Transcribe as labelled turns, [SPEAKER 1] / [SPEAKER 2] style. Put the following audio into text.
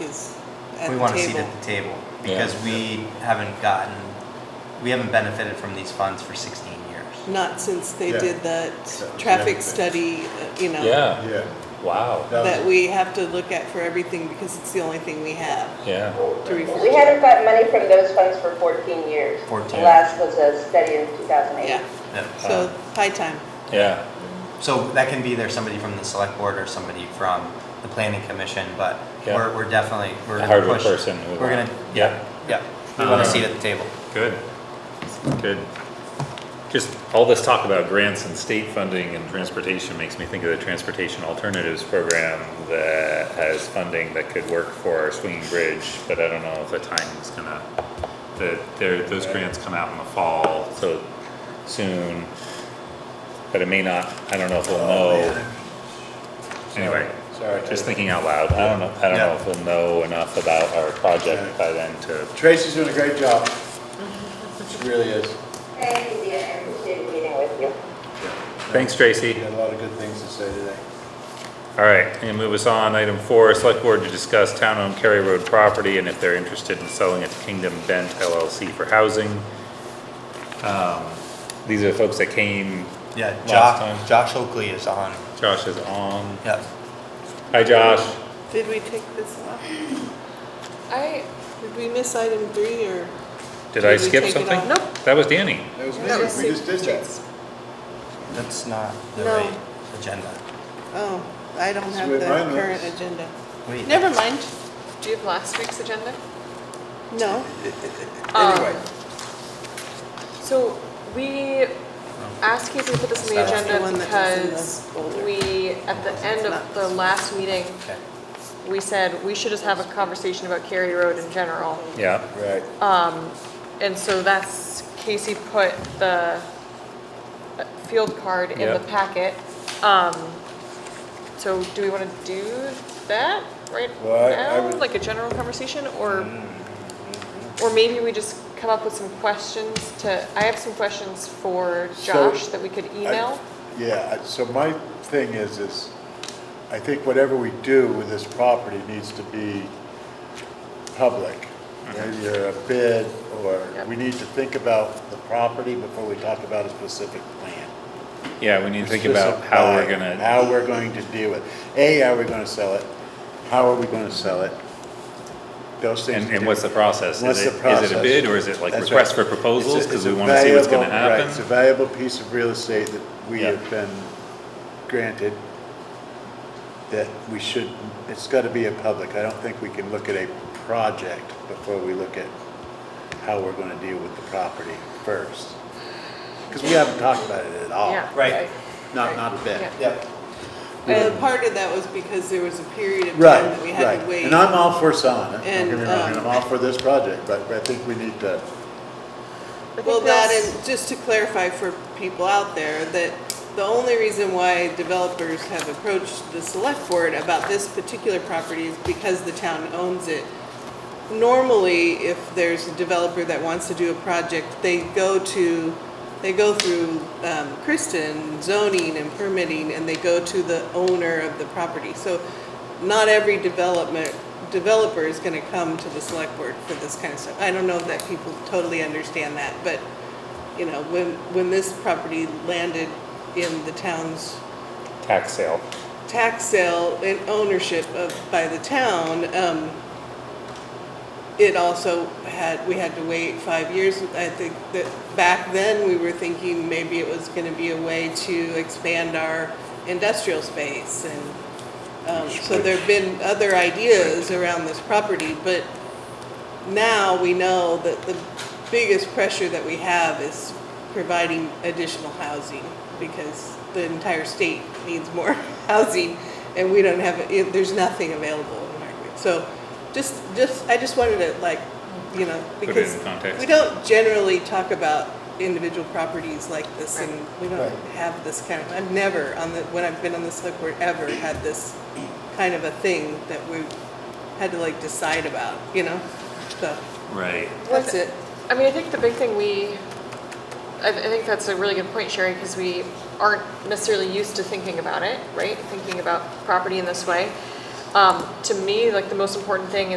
[SPEAKER 1] is at
[SPEAKER 2] We
[SPEAKER 1] the
[SPEAKER 2] want a seat
[SPEAKER 1] table.
[SPEAKER 2] at the table
[SPEAKER 3] Yeah.
[SPEAKER 2] because we haven't gotten, we haven't benefited from these funds for sixteen years.
[SPEAKER 1] Not since they
[SPEAKER 4] Yeah.
[SPEAKER 1] did that
[SPEAKER 4] was
[SPEAKER 1] traffic
[SPEAKER 4] everything.
[SPEAKER 1] study, uh, you know.
[SPEAKER 3] Yeah,
[SPEAKER 4] Yeah.
[SPEAKER 3] wow,
[SPEAKER 4] that was-
[SPEAKER 1] That we have to look at for everything because it's the only thing we have
[SPEAKER 3] yeah,
[SPEAKER 1] to refer
[SPEAKER 5] We
[SPEAKER 1] to.
[SPEAKER 5] haven't gotten money from those funds for 14 years.
[SPEAKER 2] 14.
[SPEAKER 5] The last was a study in 2008.
[SPEAKER 1] Yeah,
[SPEAKER 2] Yeah.
[SPEAKER 1] so high time.
[SPEAKER 3] yeah,
[SPEAKER 2] uh, So that can be either somebody from the select board or somebody from the planning commission, but
[SPEAKER 3] Yeah.
[SPEAKER 2] we're, we're definitely, we're
[SPEAKER 3] A
[SPEAKER 2] gonna
[SPEAKER 3] hardwood
[SPEAKER 2] push.
[SPEAKER 3] person we
[SPEAKER 2] We're
[SPEAKER 3] want.
[SPEAKER 2] gonna, yeah, uh, yeah, Um, we want a seat at the table.
[SPEAKER 3] good, good. Just all this talk about grants and state funding and transportation makes me think of the Transportation Alternatives Program that has funding that could work for our swinging bridge, but I don't know if the timing's gonna, the, there, those grants come out in the fall, so soon. But it may not, I don't know if we'll know. Anyway.
[SPEAKER 4] Sorry. Terry.
[SPEAKER 3] Just thinking out loud, I don't know, I don't know if we'll know enough about our project by then to,
[SPEAKER 4] Tracy's doing a great job. She really is.
[SPEAKER 5] Thank you, Dina. I appreciate meeting with you.
[SPEAKER 3] thanks Tracy.
[SPEAKER 4] She had a lot of good things to say today.
[SPEAKER 3] All right, I'm gonna move us on, item four, select board to discuss town-owned Cary Road property and if they're interested in selling it to Kingdom Bent LLC for housing. Um, These are the folks that came,
[SPEAKER 2] Yeah,
[SPEAKER 3] Last time.
[SPEAKER 2] Josh, Josh Oakley is on,
[SPEAKER 3] Josh is on,
[SPEAKER 2] yeah.
[SPEAKER 3] hi Josh,
[SPEAKER 1] Did we take this off?
[SPEAKER 6] I,
[SPEAKER 1] Did we miss item three or?
[SPEAKER 3] did I
[SPEAKER 1] Did we
[SPEAKER 3] skip
[SPEAKER 1] take it
[SPEAKER 3] something?
[SPEAKER 1] off?
[SPEAKER 6] Nope.
[SPEAKER 3] That was Danny,
[SPEAKER 4] That was
[SPEAKER 6] that was
[SPEAKER 4] me, we just did that.
[SPEAKER 6] Sue's.
[SPEAKER 2] That's not the
[SPEAKER 1] No.
[SPEAKER 2] right agenda.
[SPEAKER 1] Oh, I don't
[SPEAKER 4] This
[SPEAKER 1] have
[SPEAKER 4] is
[SPEAKER 1] the
[SPEAKER 4] where mine
[SPEAKER 1] current
[SPEAKER 4] was.
[SPEAKER 1] agenda.
[SPEAKER 2] Wait,
[SPEAKER 1] Never mind,
[SPEAKER 6] Do you have last week's agenda?
[SPEAKER 1] no.
[SPEAKER 4] um,
[SPEAKER 6] Anyway. So we
[SPEAKER 2] Oh,
[SPEAKER 6] asked Casey to put this on the
[SPEAKER 2] That's the
[SPEAKER 6] agenda
[SPEAKER 1] one that was in the
[SPEAKER 6] because
[SPEAKER 1] folder.
[SPEAKER 6] we, at the end
[SPEAKER 1] It's not.
[SPEAKER 6] of the last meeting,
[SPEAKER 2] okay.
[SPEAKER 6] we said we should just have a conversation about Cary Road in general.
[SPEAKER 3] yeah,
[SPEAKER 4] Right.
[SPEAKER 6] And so that's, Casey put the uh, field card in the
[SPEAKER 3] Yep.
[SPEAKER 6] packet. Um, so do we wanna do that right
[SPEAKER 4] Well, I- I
[SPEAKER 6] now,
[SPEAKER 4] would- Mm-hmm.
[SPEAKER 6] like a general conversation, or? Or maybe we just come up with some questions to, I have some questions for
[SPEAKER 4] So,
[SPEAKER 6] Josh that we could email.
[SPEAKER 4] Yeah, I- so my thing is, is I think whatever we do with this property needs to be public. Either a bid, or
[SPEAKER 6] Yep.
[SPEAKER 4] we need to think about the property before we talk about a specific plan.
[SPEAKER 3] yeah, we need to think about how we're
[SPEAKER 4] Specify
[SPEAKER 3] gonna.
[SPEAKER 4] How we're going to deal with, A, are we gonna sell it? How are we gonna sell it? Those things.
[SPEAKER 3] And, and what's the process? Is
[SPEAKER 4] What's
[SPEAKER 3] it-
[SPEAKER 4] the process?
[SPEAKER 3] Is it a bid or is it like
[SPEAKER 4] That's
[SPEAKER 3] request for
[SPEAKER 4] right.
[SPEAKER 3] proposals?
[SPEAKER 4] It's a-
[SPEAKER 3] Cause
[SPEAKER 4] it's a
[SPEAKER 3] we wanna see what's gonna
[SPEAKER 4] valuable- right, It's a
[SPEAKER 3] happen?
[SPEAKER 4] valuable piece of real estate that we
[SPEAKER 3] Yeah.
[SPEAKER 4] have been granted that we should, it's gotta be a public. I don't think we can look at a project before we look at how we're gonna deal with the property first. Cause we haven't talked about it at all,
[SPEAKER 6] Yeah.
[SPEAKER 2] right.
[SPEAKER 4] not, not a bit.
[SPEAKER 6] Yeah.
[SPEAKER 2] Yep,
[SPEAKER 1] Well, Uh, part of that was because there was a period of time
[SPEAKER 4] Right,
[SPEAKER 1] that we had to
[SPEAKER 4] right.
[SPEAKER 1] wait.
[SPEAKER 4] And I'm all for selling it. Don't
[SPEAKER 1] And,
[SPEAKER 4] get me wrong,
[SPEAKER 1] um,
[SPEAKER 4] and I'm all for this project, but I think we need to,
[SPEAKER 6] I think
[SPEAKER 1] Well, that
[SPEAKER 6] that's-
[SPEAKER 1] and just to clarify for people out there, that the only reason why developers have approached the select board about this particular property is because the town owns it. Normally, if there's a developer that wants to do a project, they go to, they go through um, Kristen zoning and permitting, and they go to the owner of the property. So not every development, developer is gonna come to the select board for this kind of stuff. I don't know that people totally understand that, but, you know, when, when this property landed in the town's
[SPEAKER 3] Tax sale.
[SPEAKER 1] tax sale and ownership of, by the town, um, it also had, we had to wait five years. I think that back then, we were thinking maybe it was gonna be a way to expand our industrial space and, um, so there've been other ideas around this property, but now we know that the biggest pressure that we have is providing additional housing because the entire state needs more housing and we don't have, it- there's nothing available in Hardwick. So just, just, I just wanted to like, you know,
[SPEAKER 3] Put it in
[SPEAKER 1] because
[SPEAKER 3] context.
[SPEAKER 1] we don't generally talk about individual properties like this and we
[SPEAKER 4] Right.
[SPEAKER 1] don't have this kind of, I've never on the, when I've been on the select board ever had this kind of a thing that we had to like decide about, you know? So.
[SPEAKER 3] Right.
[SPEAKER 1] That's it.
[SPEAKER 6] I mean, I think the big thing we, I, I think that's a really good point, Sherry, because we aren't necessarily used to thinking about it, right? Thinking about property in this way. Um, to me, like the most important thing